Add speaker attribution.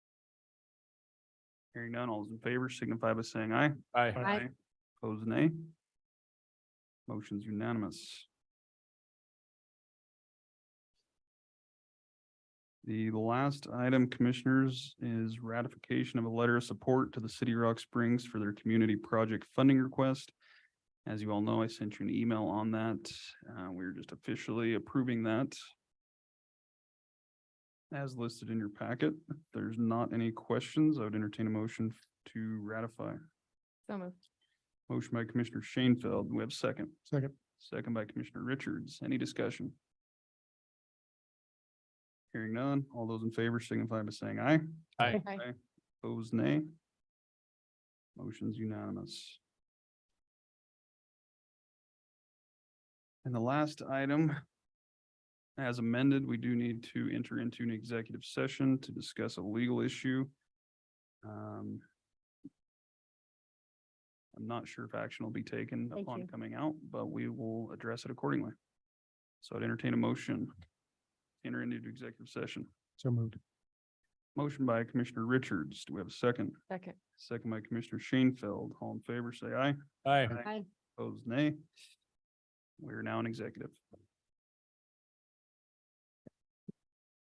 Speaker 1: Hearing none, all those in favor signify by saying aye.
Speaker 2: Aye.
Speaker 3: Aye.
Speaker 1: Opposed, nay. Motion's unanimous. The last item, commissioners, is ratification of a letter of support to the City of Rock Springs for their community project funding request. As you all know, I sent you an email on that. Uh, we're just officially approving that as listed in your packet. If there's not any questions, I would entertain a motion to ratify.
Speaker 3: So moved.
Speaker 1: Motion by Commissioner Shanefield. We have a second.
Speaker 2: Second.
Speaker 1: Second by Commissioner Richards. Any discussion? Hearing none. All those in favor signify by saying aye.
Speaker 2: Aye.
Speaker 3: Aye.
Speaker 1: Opposed, nay. Motion's unanimous. And the last item, as amended, we do need to enter into an executive session to discuss a legal issue. Um, I'm not sure if action will be taken
Speaker 3: Thank
Speaker 1: upon
Speaker 3: you.
Speaker 1: coming out, but we will address it accordingly. So I'd entertain a motion, to enter into executive session.
Speaker 2: So moved.
Speaker 1: Motion by Commissioner Richards. Do we have a second?
Speaker 3: Second.
Speaker 1: Second by Commissioner Shanefield. All in favor, say aye.
Speaker 2: Aye.
Speaker 1: Opposed, nay. We're now in executive.